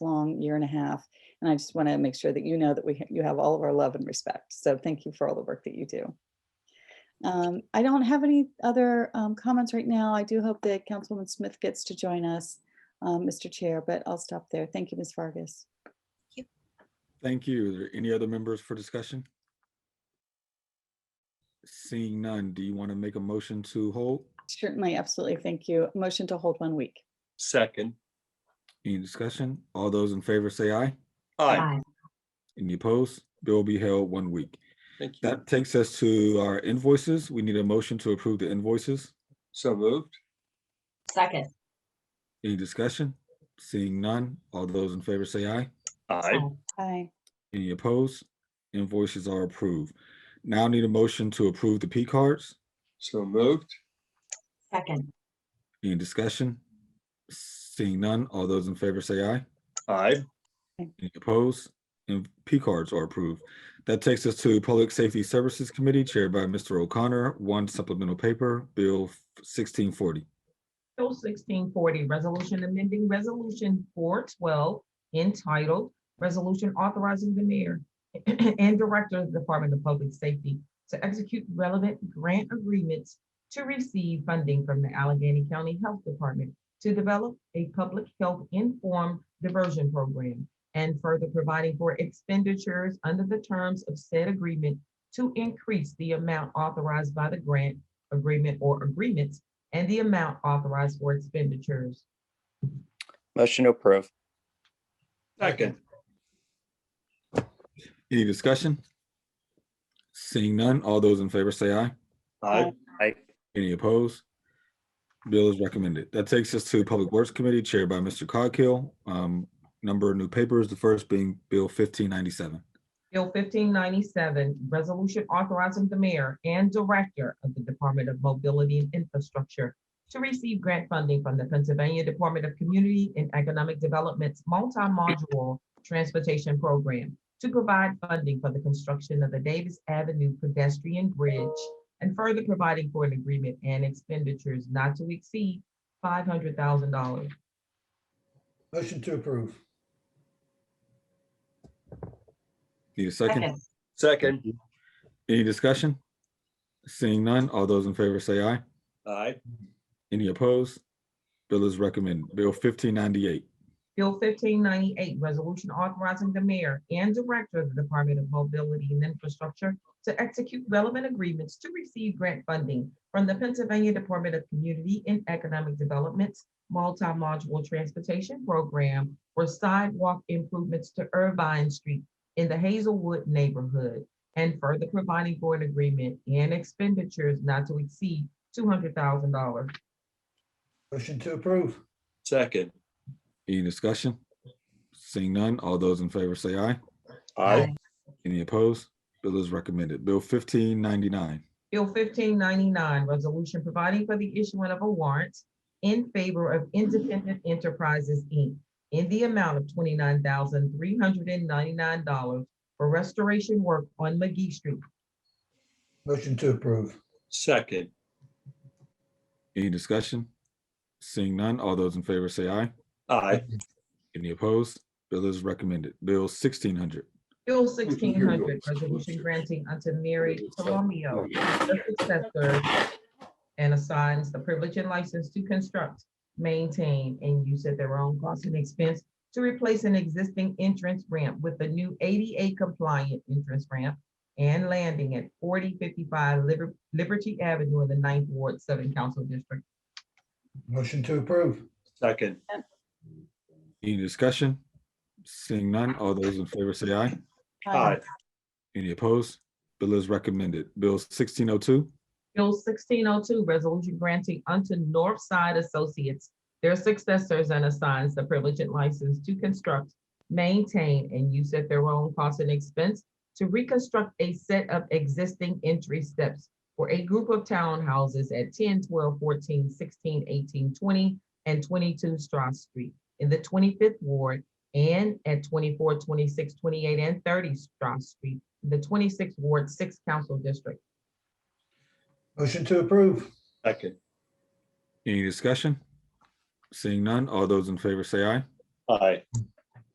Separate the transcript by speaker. Speaker 1: year and a half. And I just want to make sure that you know that we, you have all of our love and respect. So thank you for all the work that you do. Um, I don't have any other um, comments right now. I do hope that Councilwoman Smith gets to join us, um, Mr. Chair, but I'll stop there. Thank you, Ms. Vargas.
Speaker 2: Thank you. Are there any other members for discussion? Seeing none, do you want to make a motion to hold?
Speaker 1: Certainly, absolutely. Thank you. Motion to hold one week.
Speaker 3: Second.
Speaker 2: Any discussion? All those in favor say aye.
Speaker 3: Aye.
Speaker 2: Any opposed? Bill will be held one week.
Speaker 3: Thank you.
Speaker 2: That takes us to our invoices. We need a motion to approve the invoices.
Speaker 3: So moved.
Speaker 4: Second.
Speaker 2: Any discussion? Seeing none, all those in favor say aye.
Speaker 3: Aye.
Speaker 1: Aye.
Speaker 2: Any opposed? Invoices are approved. Now need a motion to approve the P cards.
Speaker 3: So moved.
Speaker 4: Second.
Speaker 2: Any discussion? Seeing none, all those in favor say aye.
Speaker 3: Aye.
Speaker 2: Any opposed? And P cards are approved. That takes us to Public Safety Services Committee chaired by Mr. O'Connor, one supplemental paper, Bill sixteen forty.
Speaker 5: Bill sixteen forty, resolution amending resolution four twelve entitled Resolution Authorizing the Mayor and Director of the Department of Public Safety to execute relevant grant agreements to receive funding from the Allegheny County Health Department to develop a public health informed diversion program and further providing for expenditures under the terms of said agreement to increase the amount authorized by the grant agreement or agreements and the amount authorized for expenditures.
Speaker 6: Motion to approve.
Speaker 3: Second.
Speaker 2: Any discussion? Seeing none, all those in favor say aye.
Speaker 3: Aye.
Speaker 6: Aye.
Speaker 2: Any opposed? Bill is recommended. That takes us to Public Works Committee chaired by Mr. Coghill. Um, number of new papers, the first being Bill fifteen ninety-seven.
Speaker 5: Bill fifteen ninety-seven, resolution authorizing the mayor and director of the Department of Mobility and Infrastructure to receive grant funding from the Pennsylvania Department of Community and Economic Development's multi-module transportation program to provide funding for the construction of the Davis Avenue pedestrian bridge and further providing for an agreement and expenditures not to exceed five hundred thousand dollars.
Speaker 7: Motion to approve.
Speaker 2: Need a second?
Speaker 3: Second.
Speaker 2: Any discussion? Seeing none, all those in favor say aye.
Speaker 3: Aye.
Speaker 2: Any opposed? Bill is recommended. Bill fifteen ninety-eight.
Speaker 5: Bill fifteen ninety-eight, resolution authorizing the mayor and director of the Department of Mobility and Infrastructure to execute relevant agreements to receive grant funding from the Pennsylvania Department of Community and Economic Development's multi-module transportation program for sidewalk improvements to Irvine Street in the Hazelwood neighborhood and further providing for an agreement and expenditures not to exceed two hundred thousand dollars.
Speaker 7: Motion to approve.
Speaker 3: Second.
Speaker 2: Any discussion? Seeing none, all those in favor say aye.
Speaker 3: Aye.
Speaker 2: Any opposed? Bill is recommended. Bill fifteen ninety-nine.
Speaker 5: Bill fifteen ninety-nine, resolution providing for the issuing of a warrant in favor of Independent Enterprises, Inc. in the amount of twenty-nine thousand three hundred and ninety-nine dollars for restoration work on McGee Street.
Speaker 7: Motion to approve.
Speaker 3: Second.
Speaker 2: Any discussion? Seeing none, all those in favor say aye.
Speaker 3: Aye.
Speaker 2: Any opposed? Bill is recommended. Bill sixteen hundred.
Speaker 5: Bill
Speaker 3: can
Speaker 5: sixteen
Speaker 3: hear you.
Speaker 5: hundred, resolution granting unto Mary Colomio the successor and assigns the privilege and license to construct, maintain, and use at their own cost and expense to replace an existing entrance ramp with a new ADA compliant entrance ramp and landing at forty fifty-five Liberty Avenue in the Ninth Ward, Southern Council District.
Speaker 7: Motion to approve.
Speaker 3: Second.
Speaker 2: Any discussion? Seeing none, all those in favor say aye.
Speaker 3: Aye.
Speaker 2: Any opposed? Bill is recommended. Bill sixteen oh two.
Speaker 5: Bill sixteen oh two, resolution granting unto Northside Associates their successors and assigns the privilege and license to construct, maintain, and use at their own cost and expense to reconstruct a set of existing entry steps for a group of townhouses at 10, 12, 14, 16, 18, 20, and twenty-two Strauss Street in the twenty-fifth ward and at 24, 26, 28, and thirty Strauss Street, in the twenty-sixth ward, sixth council district.
Speaker 7: Motion to approve.
Speaker 3: Second.
Speaker 2: Any discussion? Seeing none, all those in favor say aye.
Speaker 3: Aye.